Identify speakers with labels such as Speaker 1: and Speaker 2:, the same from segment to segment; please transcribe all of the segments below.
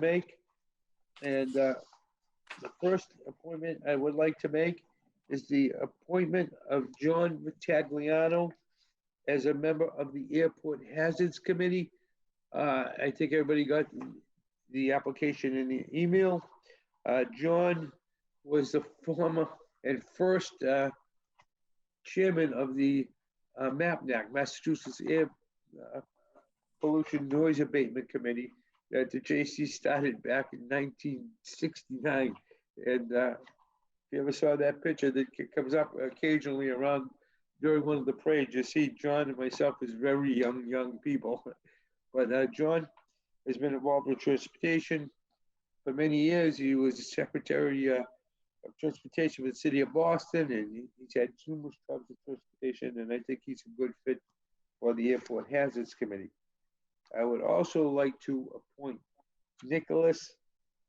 Speaker 1: make. And uh, the first appointment I would like to make is the appointment of John Vitagliano as a member of the Airport Hazards Committee. Uh, I think everybody got the- the application in the email. Uh, John was the former and first uh, chairman of the uh, MAPNAC, Massachusetts Air uh, Pollution Noise Abatement Committee that the JC started back in 1969. And uh, if you ever saw that picture that c- comes up occasionally around during one of the parades, you see John and myself as very young, young people. But uh, John has been involved with transportation for many years. He was the secretary uh, of transportation for the city of Boston, and he- he's had numerous jobs in transportation. And I think he's a good fit for the airport hazards committee. I would also like to appoint Nicholas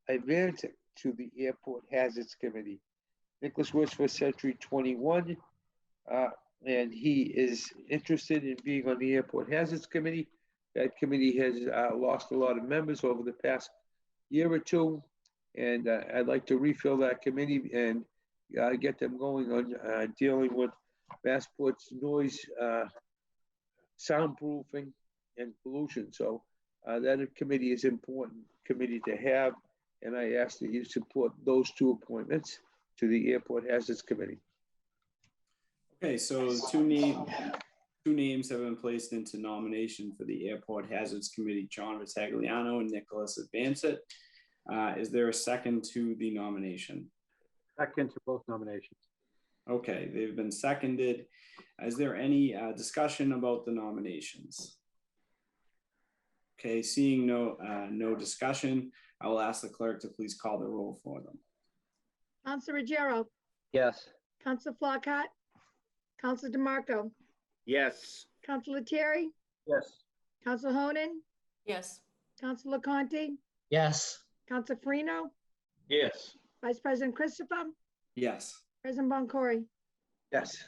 Speaker 1: Ivantic to the Airport Hazards Committee. Nicholas works for Century 21, uh, and he is interested in being on the Airport Hazards Committee. That committee has uh, lost a lot of members over the past year or two, and uh, I'd like to refill that committee and uh, get them going on uh, dealing with Massport's noise, uh, soundproofing, and pollution. So uh, that committee is important committee to have, and I ask that you support those two appointments to the Airport Hazards Committee.
Speaker 2: Okay, so two name, two names have been placed into nomination for the Airport Hazards Committee, John Vitagliano and Nicholas Advancet. Uh, is there a second to the nomination?
Speaker 3: Second to both nominations.
Speaker 2: Okay, they've been seconded. Is there any uh, discussion about the nominations? Okay, seeing no, uh, no discussion, I will ask the clerk to please call the roll for them.
Speaker 4: Counsel Ruggiero,
Speaker 5: Yes.
Speaker 4: Counsel Flacott, Counsel DeMarco,
Speaker 6: Yes.
Speaker 4: Counsel Terry,
Speaker 3: Yes.
Speaker 4: Counsel Honan,
Speaker 7: Yes,
Speaker 4: Counsel Conti,
Speaker 5: Yes.
Speaker 4: Counsel Farino,
Speaker 1: Yes.
Speaker 4: Vice President Christopher,
Speaker 2: Yes,
Speaker 4: President Boncory.
Speaker 1: Yes.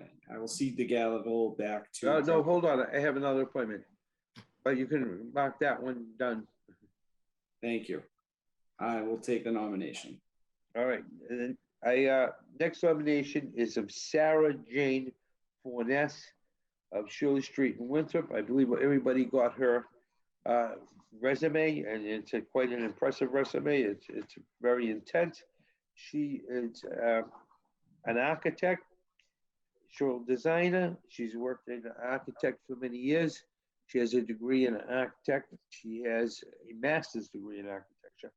Speaker 2: okay, I will cede the gavel back to.
Speaker 1: No, Uh, no, hold on. I have another appointment. But you can mark that one done.
Speaker 2: Thank you. I will take the nomination.
Speaker 1: All right. And then I, uh, next nomination is of Sarah Jane Fornes of Shirley Street in Winthrop. I believe everybody got her uh, resume, and it's a- quite an impressive resume. It's, it's very intense. She is uh, an architect, she's a designer. She's worked as an architect for many years. She has a degree in architect. She has a master's degree in architecture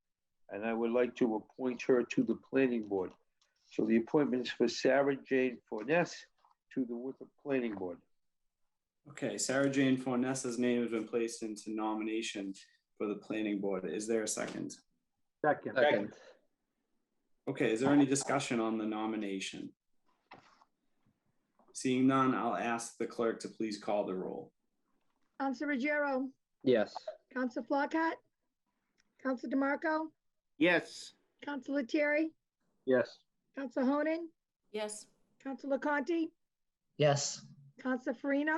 Speaker 1: and I would like to appoint her to the planning board. So the appointment is for Sarah Jane Fornes to the Winthrop Planning Board.
Speaker 2: Okay, Sarah Jane Fornessa's name has been placed into nomination for the planning board. Is there a second?
Speaker 3: Second.
Speaker 5: Second.
Speaker 2: Okay, is there any discussion on the nomination? Seeing none, I'll ask the clerk to please call the roll.
Speaker 4: Counsel Ruggiero,
Speaker 5: Yes.
Speaker 4: Counsel Flacott, Counsel DeMarco,
Speaker 6: Yes.
Speaker 4: Counsel Terry,
Speaker 3: Yes.
Speaker 4: Counsel Honan,
Speaker 7: yes,
Speaker 4: Counsel Conti,
Speaker 5: Yes.
Speaker 4: Counsel Farino,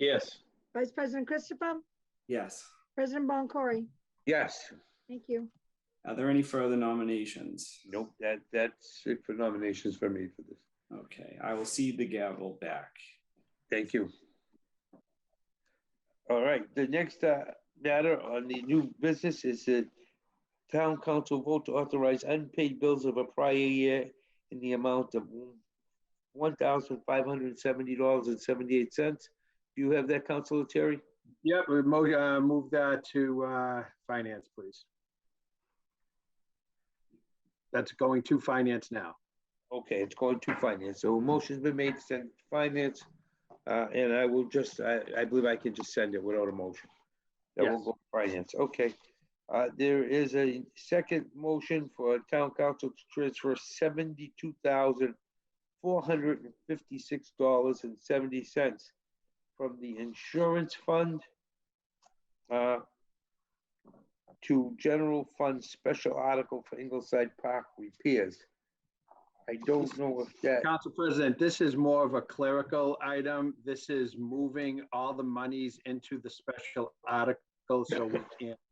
Speaker 1: Yes.
Speaker 4: Vice President Christopher,
Speaker 2: Yes.
Speaker 4: President Boncory.
Speaker 1: Yes.
Speaker 4: Thank you.
Speaker 2: Are there any further nominations?
Speaker 1: Nope, that, that's it for nominations for me for this.
Speaker 2: Okay, I will cede the gavel back.
Speaker 1: Thank you. All right, the next uh, matter on the new business is the town council vote to authorize unpaid bills of a prior year in the amount of one thousand five hundred and seventy dollars and seventy-eight cents. Do you have that, Councilor Terry?
Speaker 3: Yep, we mo- uh, move that to uh, finance, please. That's going to finance now.
Speaker 1: Okay, it's going to finance. So a motion's been made to send to finance. uh, And I will just, I, I believe I can just send it without a motion. That will
Speaker 3: Yes.
Speaker 1: go to finance, okay. Uh, There is a second motion for town council to transfer seventy-two thousand four hundred and fifty-six dollars and seventy cents from the insurance fund uh, to general fund special article for Ingleside Park repairs. I don't know if that.
Speaker 3: Council President, this is more of a clerical item. This is moving all the monies into the special article Mexico, so we can't